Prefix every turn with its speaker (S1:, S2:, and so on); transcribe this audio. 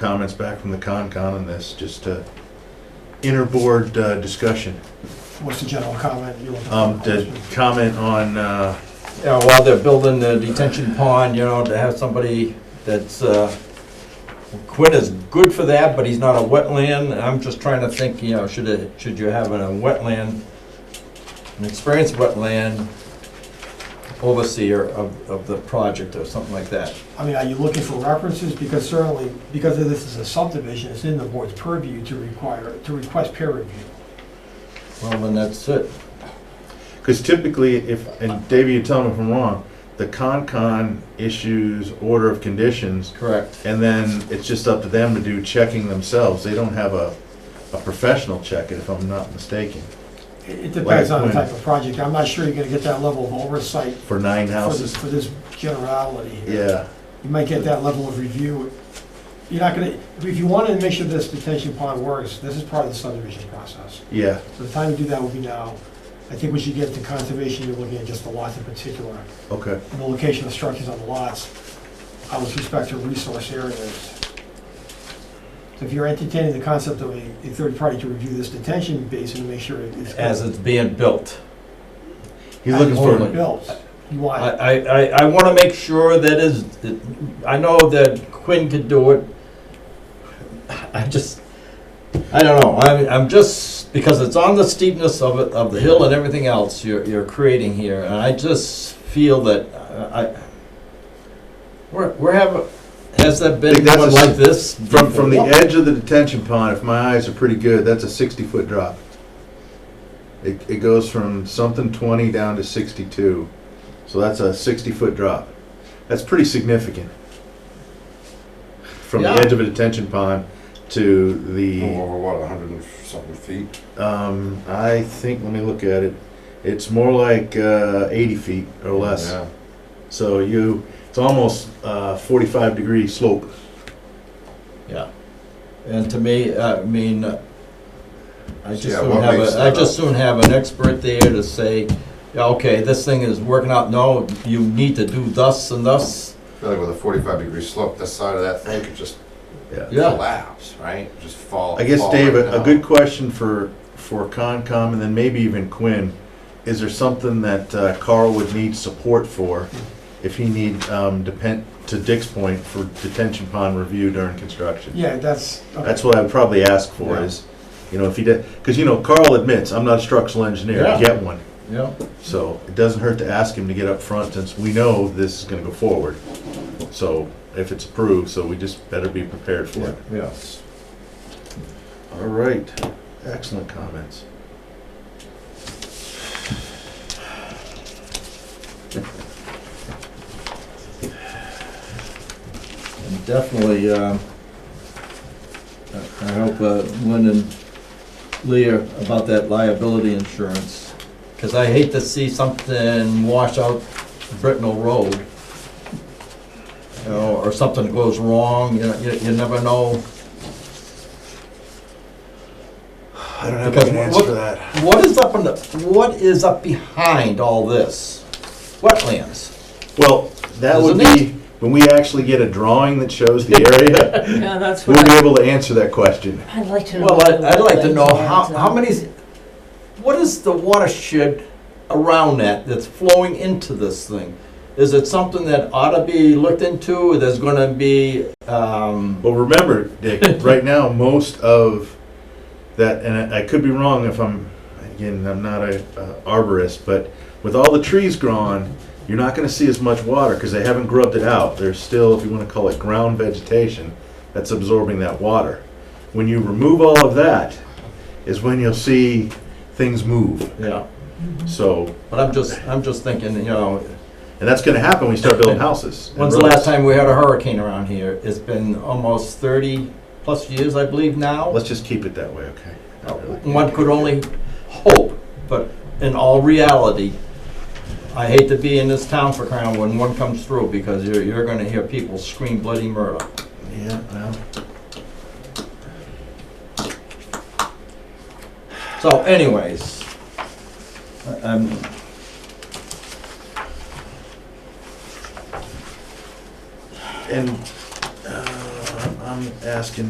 S1: comments back from the Concon on this, just uh interboard uh, discussion.
S2: What's the general comment you want?
S1: Um, to comment on, uh,
S3: you know, while they're building the detention pond, you know, to have somebody that's, uh, Quinn is good for that, but he's not a wetland, and I'm just trying to think, you know, should it, should you have a wetland, an experienced wetland overseer of, of the project or something like that?
S2: I mean, are you looking for references? Because certainly, because of this is a subdivision, it's in the board's purview to require, to request peer review.
S3: Well, then that's it.
S1: because typically if, and Davey, you tell me if I'm wrong, the Concon issues order of conditions,
S3: Correct.
S1: and then it's just up to them to do checking themselves. They don't have a, a professional check it, if I'm not mistaken,
S2: It it depends on the
S1: Right.
S2: type of project. I'm not sure you're gonna get that level of oversight
S1: for nine
S2: for this,
S1: houses.
S2: for this generality. here.
S1: Yeah,
S2: You might get that level of review. You're not gonna, if you wanted to make sure this detention pond works, this is part of the subdivision process.
S1: yeah,
S2: So the time to do that would be now. I think we should get to conservation, you're looking at just the lots in particular.
S1: okay.
S2: and the location of structures on the lots uh, with respect to resource areas. So if you're entertaining the concept of a, a third party to review this detention basin to make sure it's.
S3: As it's being built.
S1: He's looking for,
S3: Absolutely.
S2: Built, you
S3: I,
S2: want,
S3: I, I, I wanna make sure that is, that- I know that Quinn could do it. I just, I don't know, I'm, I'm just, because it's on the steepness of it, of the hill and everything else you're, you're creating here, and I just feel that, uh, I, we're, we're having, has there been
S1: Think that's
S3: one
S1: a
S3: like
S1: s-
S3: this?
S1: from, from the
S3: before?
S1: edge of the detention pond, if my eyes are pretty good, that's a sixty-foot drop. It, it goes from something twenty down to sixty-two, so that's a sixty-foot drop. That's pretty significant. From the
S3: Yeah.
S1: edge of a detention pond to
S4: Well,
S1: the,
S4: Over what, a hundred and something feet?
S1: um, I think, let me look at it, it's more like, uh, eighty feet or less.
S4: Yeah.
S1: So you, it's almost, uh, forty-five degree slope.
S3: Yeah, and to me, I mean, uh, I just
S4: Yeah,
S3: soon
S4: what
S3: have,
S4: makes
S3: a I
S4: that
S3: just
S4: up?
S3: soon have an expert there to say, yeah, okay, this thing is working out, no, you need to do thus and thus.
S4: I feel like with a forty-five degree slope, the side of that thing could just
S3: Yeah,
S4: collapse, right? Just fall.
S1: I guess,
S4: fall
S1: Dave,
S4: right
S1: a, a
S4: down.
S1: good question for, for Concom and then maybe even Quinn. Is there something that uh, Carl would need support for if he need, um, depend, to Dick's point, for detention pond review during construction?
S2: yeah, that's, okay.
S1: That's what I'd probably ask for
S4: Yeah.
S1: is, you know, if he did, because, you know, Carl admits, I'm not a structural engineer,
S3: Yeah.
S1: I get one.
S3: yeah,
S1: So it doesn't hurt to ask him to get up front since we know this is gonna go forward. So if it's approved, so we just better be prepared for it.
S3: yes.
S1: All right, excellent comments.
S3: And definitely, um, I I hope uh, Lynn and Leah about that liability insurance, because I hate to see something wash out Britnell Road, you know, or something goes wrong, you know, you you never know.
S1: I don't
S3: have a good answer for
S1: that.
S3: What is up in the, what is up behind all this? Wetlands.
S1: Well, that would
S3: Isn't
S1: be, when we actually get a drawing that shows the area,
S5: Yeah, that's
S1: we'll
S5: what
S1: be
S5: I-
S1: able to answer that question.
S5: I'd like to know.
S3: Well, I'd,
S5: what
S3: I'd like to
S5: the
S3: know
S5: wetlands
S3: how,
S5: are.
S3: how many, what is the watershed around that that's flowing into this thing? Is it something that ought to be looked into, there's gonna be, um,
S1: Well, remember, Dick, right now, most of that, and I I could be wrong if I'm, again, I'm not a uh, arborist, but with all the trees gone, you're not gonna see as much water, because they haven't grubbed it out. There's still, if you wanna call it ground vegetation, that's absorbing that water. When you remove all of that, is when you'll see things move.
S3: yeah,
S1: So,
S3: but I'm just, I'm just thinking, you know,
S1: And that's gonna happen when you start building houses.
S3: when's the last time we had a hurricane around here? It's been almost thirty plus years, I believe now.
S1: Let's just keep it that way, okay? Not really.
S3: Uh, One could only hope, but in all reality, I hate to be in this town for crown when one comes through, because you're, you're gonna hear people scream bloody murder.
S1: Yeah, well,
S3: So anyways, I- I'm.
S1: and, uh, I'm I'm asking